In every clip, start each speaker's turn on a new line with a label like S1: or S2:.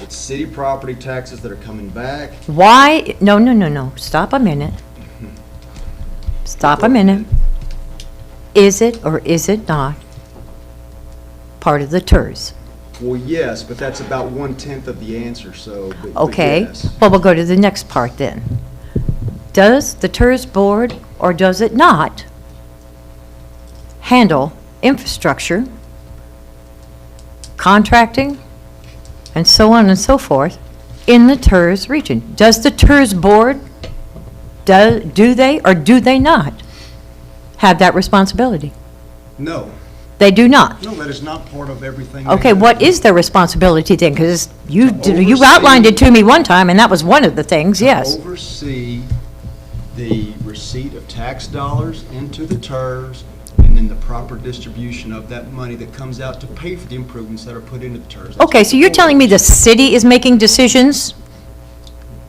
S1: It's city property taxes that are coming back.
S2: Why, no, no, no, no, stop a minute. Stop a minute. Is it or is it not part of the TERS?
S1: Well, yes, but that's about one-tenth of the answer, so. but- but
S2: Okay,
S1: yes.
S2: well, we'll go to the next part then. Does the TERS board, or does it not, handle infrastructure, contracting, and so on and so forth in the TERS region? Does the TERS board, do do they or do they not have that responsibility?
S3: No,
S2: They do not.
S3: no, that is not part of everything.
S2: Okay,
S3: they-
S2: what is their responsibility then? Because you, you outlined it to me one time, and that was one of the things, yes.
S1: Oversee the receipt of tax dollars into the TERS and then the proper distribution of that money that comes out to pay for the improvements that are put into the TERS.
S2: Okay, so you're telling me the city is making decisions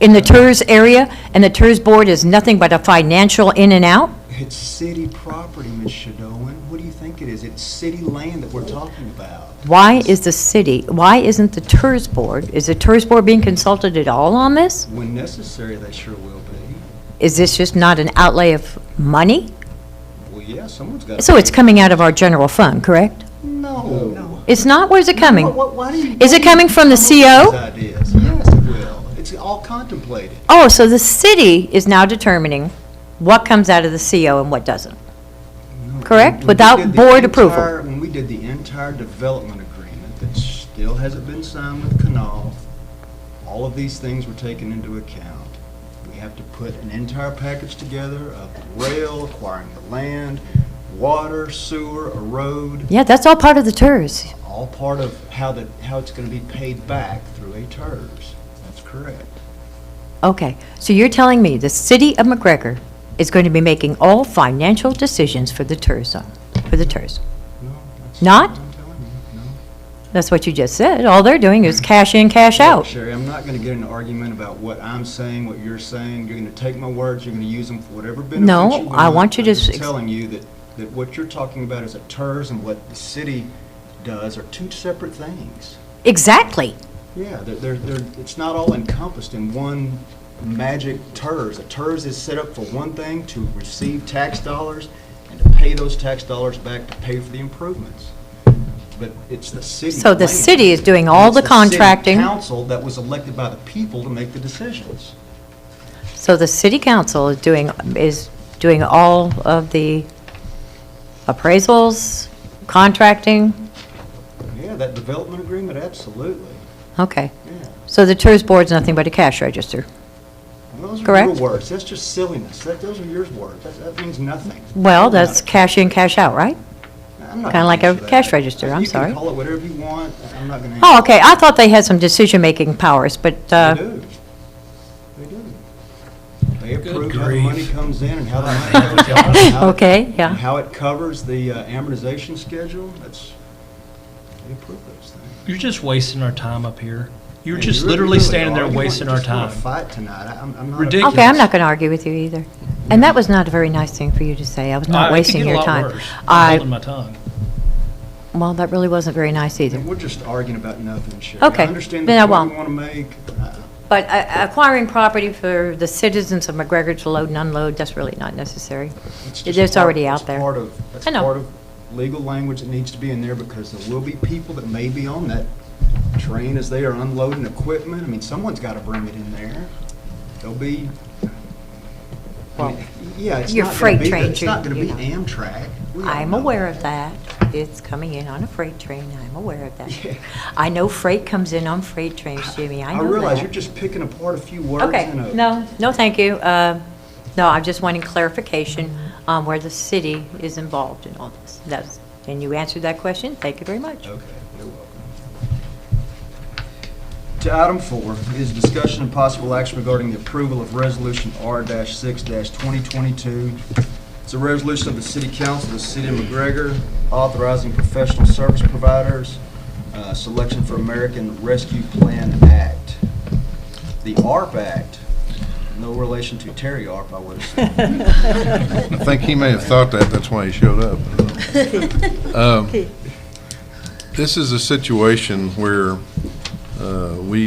S2: in the TERS area, and the TERS board is nothing but a financial in and out?
S1: It's city property, Ms. Shadowan. What do you think it is? It's city land that we're talking about.
S2: Why is the city, why isn't the TERS board, is the TERS board being consulted at all on this?
S1: When necessary, they sure will be.
S2: Is this just not an outlay of money?
S1: Well, yeah, someone's got to.
S2: So it's coming out of our general fund, correct?
S1: No. No.
S2: It's not, where's it coming?
S1: Why- Why do you?
S2: Is it coming from the E
S1: These
S2: CO?
S1: ideas. Yes, it will. It's all contemplated.
S2: Oh, so the city is now determining what comes out of the CO and what doesn't.
S1: No,
S2: Correct?
S1: when we
S2: Without
S1: did the
S2: board approval.
S1: entire- When we did the entire development agreement that still hasn't been signed with Canal, all of these things were taken into account. We have to put an entire package together of the rail, acquiring the land, water, sewer, a road,
S2: Yeah, that's all part of the TERS.
S1: all part of how the, how it's gonna be paid back through a TERS. That's correct.
S2: Okay, so you're telling me the city of McGregor is going to be making all financial decisions for the TERS, zone- for the TERS?
S1: No, that's what
S2: Not?
S1: I'm telling you, no.
S2: That's what you just said. All they're doing is cash in, cash
S1: Look,
S2: out.
S1: Sherry, I'm not going to get in an argument about what I'm saying, what you're saying. You're going to take my words, you're going to use them for whatever benefit you
S2: No,
S1: want.
S2: I want you to
S1: I'm just
S2: s-
S1: telling you that, that what you're talking about is a TERS and what the city does are two separate things.
S2: Exactly.
S1: Yeah, they're, they're, they're- it's not all encompassed in one magic TERS. A TERS is set up for one thing, to receive tax dollars and to pay those tax dollars back to pay for the improvements. But it's the city.
S2: So the
S1: plan.
S2: city is doing all
S1: It's
S2: the
S1: city
S2: contracting.
S1: council that was elected by the people to make the decisions.
S2: So the city council is doing, is doing all of the appraisals, contracting?
S1: Yeah, that development agreement, absolutely,
S2: Okay,
S1: yeah.
S2: so the TERS board's nothing but a cash register.
S1: And Those are your
S2: Correct.
S1: words. That's just silliness. That, those are your words. That, that means nothing.
S2: Well,
S1: Doesn't matter.
S2: that's cash in, cash out, right?
S1: I'm not
S2: kinda like
S1: against
S2: a
S1: that.
S2: cash register, I'm
S1: You
S2: sorry.
S1: can call it whatever you want. I'm not going to.
S2: Oh, okay, I thought they had some decision-making powers, but,
S1: They
S2: uh,
S1: do. They do. They
S4: Good
S1: approve how the money
S4: grief.
S1: comes in and how the money goes out. and how it-
S2: okay, yeah.
S1: And how it covers the uh, amortization schedule, that's, they approve those things.
S4: You're just wasting our time up here. You're
S1: Yeah,
S4: just
S1: you really-
S4: literally
S1: really are.
S4: standing there
S1: You want-
S4: wasting our
S1: just wanna
S4: time.
S1: fight tonight. I- I'm- I'm not-
S4: Ridiculous.
S2: Okay, I'm not going to argue with you either. And that was not a very nice thing for you to say. I was
S4: I- I
S2: not
S4: could
S2: wasting
S4: get a
S2: your
S4: lot
S2: time.
S4: worse. I'm Holding
S2: I,
S4: my tongue.
S2: well, that really wasn't very nice either.
S1: And We're just arguing about nothing, Sherry.
S2: Okay,
S1: I understand
S2: then I
S1: the point
S2: won't.
S1: you want to make. Uh,
S2: But uh, acquiring property for the citizens of McGregor to load and unload, that's really not necessary.
S1: It's
S2: It
S1: just
S2: is
S1: part-
S2: already out
S1: it's
S2: there.
S1: part of- that's
S2: I know.
S1: part of legal language that needs to be in there because there will be people that may be on that train as they are unloading equipment. I mean, someone's got to bring it in there. There'll be, I
S2: Well,
S1: mean, yeah, it's
S2: your
S1: not going
S2: freight
S1: to be,
S2: train,
S1: it's not going to
S2: you-
S1: be
S2: you
S1: Amtrak. We all
S2: I'm
S1: know
S2: aware
S1: that.
S2: of that. It's coming in on a freight train. I'm aware of
S1: Yeah.
S2: that. I know freight comes in on freight trains, Jimmy. I know that.
S1: realize you're just picking apart a few words
S2: Okay,
S1: in a.
S2: no, no, thank you. Uh, No, I'm just wanting clarification on where the city is involved in all this. That's, and you answered that question, thank you very much.
S1: Okay, you're welcome. To item four is discussion and possible action regarding the approval of Resolution R-6-2022. It's a resolution of the City Council of the City of McGregor authorizing professional service providers, uh, selection for American Rescue Plan Act. The ARP Act, no relation to Terry ARP, I would assume.
S5: I think he may have thought that, that's why he showed up. Um, This is a situation where uh, we